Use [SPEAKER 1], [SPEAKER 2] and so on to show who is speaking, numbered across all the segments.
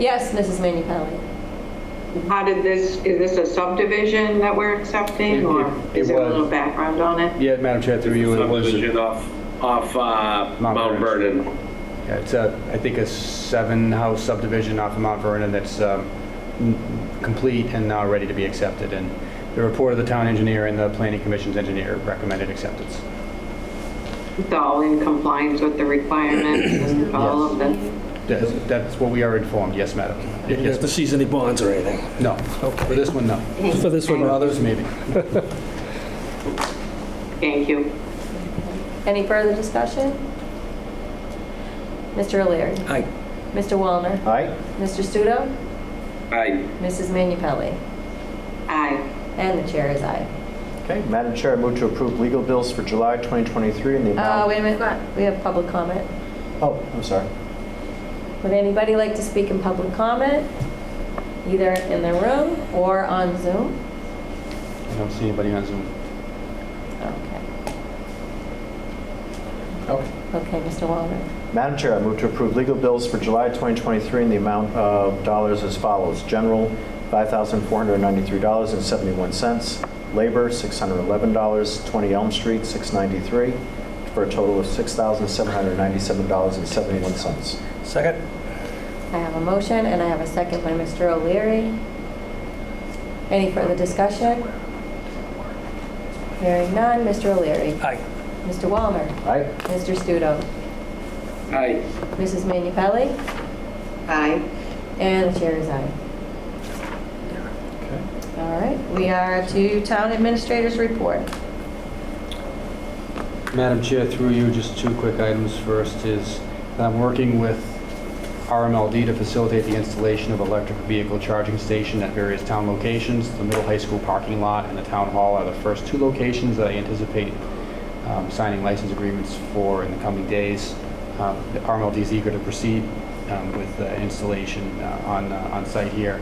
[SPEAKER 1] Yes, Mrs. Manu Pelli.
[SPEAKER 2] How did this, is this a subdivision that we're accepting, or
[SPEAKER 3] It- it
[SPEAKER 2] is there a
[SPEAKER 3] was.
[SPEAKER 2] little background on it?
[SPEAKER 3] Yeah, Madam Chair, through you, it was, yeah,
[SPEAKER 4] subdivision off, off uh, Mount
[SPEAKER 3] Vernon.
[SPEAKER 4] Vernon.
[SPEAKER 3] it's a, I think a seven-house subdivision off of Mount Vernon that's um, n- complete and now ready to be accepted. And the report of the town engineer and the planning commission's engineer recommended acceptance.
[SPEAKER 2] It's all in compliance with the requirements and all of them?
[SPEAKER 3] That's that's what we are informed, yes, madam. Y-
[SPEAKER 5] You have to
[SPEAKER 3] Yes,
[SPEAKER 5] seize any bonds or anything.
[SPEAKER 3] no, for this one, no.
[SPEAKER 5] For this one,
[SPEAKER 3] For
[SPEAKER 5] no.
[SPEAKER 3] others, maybe.
[SPEAKER 2] Thank you.
[SPEAKER 1] Any further discussion? Mr. O'Leary.
[SPEAKER 5] Aye.
[SPEAKER 1] Mr. Wallner.
[SPEAKER 6] Aye.
[SPEAKER 1] Mr. Studo.
[SPEAKER 4] Aye.
[SPEAKER 1] Mrs. Manu Pelli.
[SPEAKER 2] Aye.
[SPEAKER 1] And the chair is aye.
[SPEAKER 6] Okay, Madam Chair, I move to approve legal bills for July 2023 in the
[SPEAKER 1] Uh,
[SPEAKER 6] amount...
[SPEAKER 1] wait a minute, we have public comment.
[SPEAKER 6] Oh, I'm sorry.
[SPEAKER 1] Would anybody like to speak in public comment? Either in the room or on Zoom?
[SPEAKER 3] I don't see anybody on Zoom.
[SPEAKER 1] Okay.
[SPEAKER 6] Okay.
[SPEAKER 1] Okay, Mr. Wallner.
[SPEAKER 6] Madam Chair, I move to approve legal bills for July 2023 in the amount of dollars as follows. General, $5,493.71. Labor, $611. 20 Elm Street, $693, for a total of $6,797.71.
[SPEAKER 5] Second?
[SPEAKER 1] I have a motion and I have a second by Mr. O'Leary. Any further discussion? Hearing none, Mr. O'Leary.
[SPEAKER 5] Aye.
[SPEAKER 1] Mr. Wallner.
[SPEAKER 6] Aye?
[SPEAKER 1] Mr. Studo.
[SPEAKER 4] Aye.
[SPEAKER 1] Mrs. Manu Pelli.
[SPEAKER 2] Aye.
[SPEAKER 1] And the chair is aye.
[SPEAKER 6] Okay.
[SPEAKER 1] All right, we are to town administrators report.
[SPEAKER 3] Madam Chair, through you, just two quick items. First is, I'm working with RMLD to facilitate the installation of electric vehicle charging station at various town locations. The middle high school parking lot and the town hall are the first two locations that I anticipate um, signing license agreements for in the coming days. Um, the RMLD is eager to proceed um, with the installation uh, on, uh, on site here.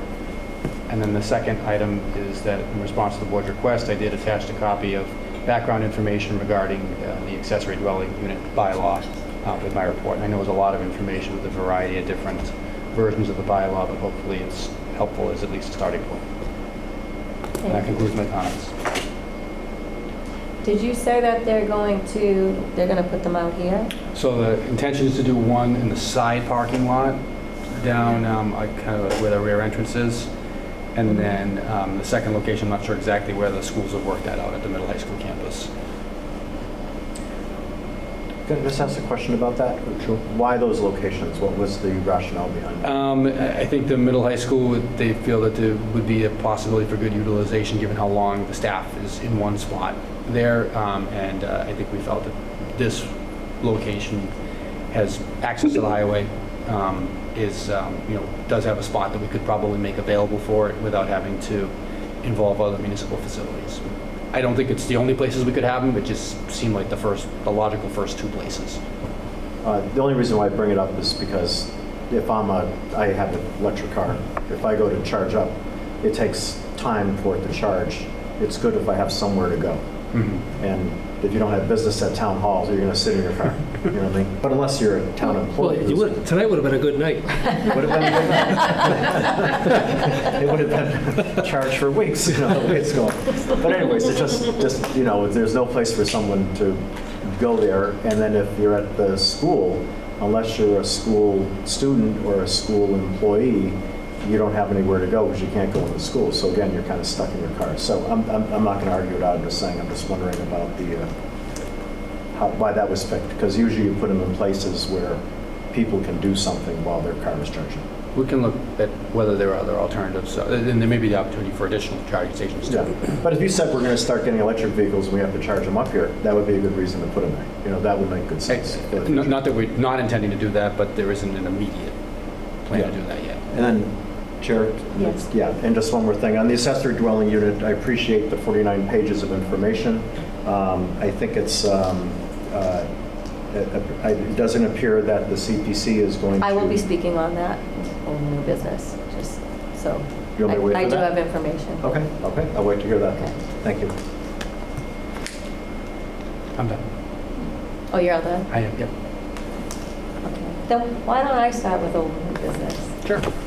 [SPEAKER 3] And then the second item is that in response to the board's request, I did attach a copy of background information regarding uh, the accessory dwelling unit bylaw uh, with my report. And I know it's a lot of information with a variety of different versions of the bylaw, but hopefully it's helpful as at least a starting point. And that concludes my comments.
[SPEAKER 1] Did you say that they're going to, they're going to put them out here?
[SPEAKER 3] So the intention is to do one in the side parking lot down, um, like, kind of where the rear entrance is. And then um, the second location, I'm not sure exactly where the schools have worked that out at the middle high school campus.
[SPEAKER 6] Can I just ask a question about that?
[SPEAKER 3] Sure.
[SPEAKER 6] Why those locations? What was the rationale behind that?
[SPEAKER 3] Um, I I think the middle high school, would- they feel that there would be a possibility for good utilization, given how long the staff is in one spot there. Um, And uh, I think we felt that this location has access to the highway, um, is, um, you know, does have a spot that we could probably make available for it without having to involve other municipal facilities. I don't think it's the only places we could have them, it just seemed like the first, the logical first two places.
[SPEAKER 6] Uh, The only reason why I bring it up is because if I'm a, I have an electric car, if I go to charge up, it takes time for it to charge. It's good if I have somewhere to go. And if you don't have business at town halls, you're gonna sit in your car, you know what I mean? But unless you're a town
[SPEAKER 5] Well,
[SPEAKER 6] employee.
[SPEAKER 5] you would, tonight would have been a good night.
[SPEAKER 6] Would have been, it would have been charged for weeks, you know, the way it's going. But anyways, it's just, just, you know, there's no place for someone to go there. And then if you're at the school, unless you're a school student or a school employee, you don't have anywhere to go because you can't go into school. So again, you're kind of stuck in your car. So I'm, I'm, I'm not going to argue it out, I'm just saying, I'm just wondering about the, uh, how, why that was picked. Because usually you put them in places where people can do something while their car is charging.
[SPEAKER 3] We can look at whether there are other alternatives, uh, and there may be the opportunity for additional charging stations
[SPEAKER 6] Yeah,
[SPEAKER 3] too.
[SPEAKER 6] but if you said we're going to start getting electric vehicles and we have to charge them up here, that would be a good reason to put them there. You know, that would make good sense. for the
[SPEAKER 3] It's-
[SPEAKER 6] future.
[SPEAKER 3] Not not that we're not intending to do that, but there isn't an immediate plan to
[SPEAKER 6] Yeah.
[SPEAKER 3] do that yet.
[SPEAKER 6] And then, Chair?
[SPEAKER 1] Yes.
[SPEAKER 6] Yeah, and just one more thing. On the accessory dwelling unit, I appreciate the 49 pages of information. Um, I think it's, um, uh, it it doesn't appear that the CPC is going to...
[SPEAKER 1] I will be speaking on that, on new business, just so.
[SPEAKER 6] You want me to wait
[SPEAKER 1] I-
[SPEAKER 6] for
[SPEAKER 1] I do
[SPEAKER 6] that? Oh.
[SPEAKER 1] have information.
[SPEAKER 6] Okay, okay, I'll wait to hear that.
[SPEAKER 1] Okay.
[SPEAKER 6] Thank you.
[SPEAKER 3] I'm done.
[SPEAKER 1] Oh, you're all done?
[SPEAKER 3] I am, yep.
[SPEAKER 1] Okay. Then why don't I start with old new business?
[SPEAKER 3] Sure.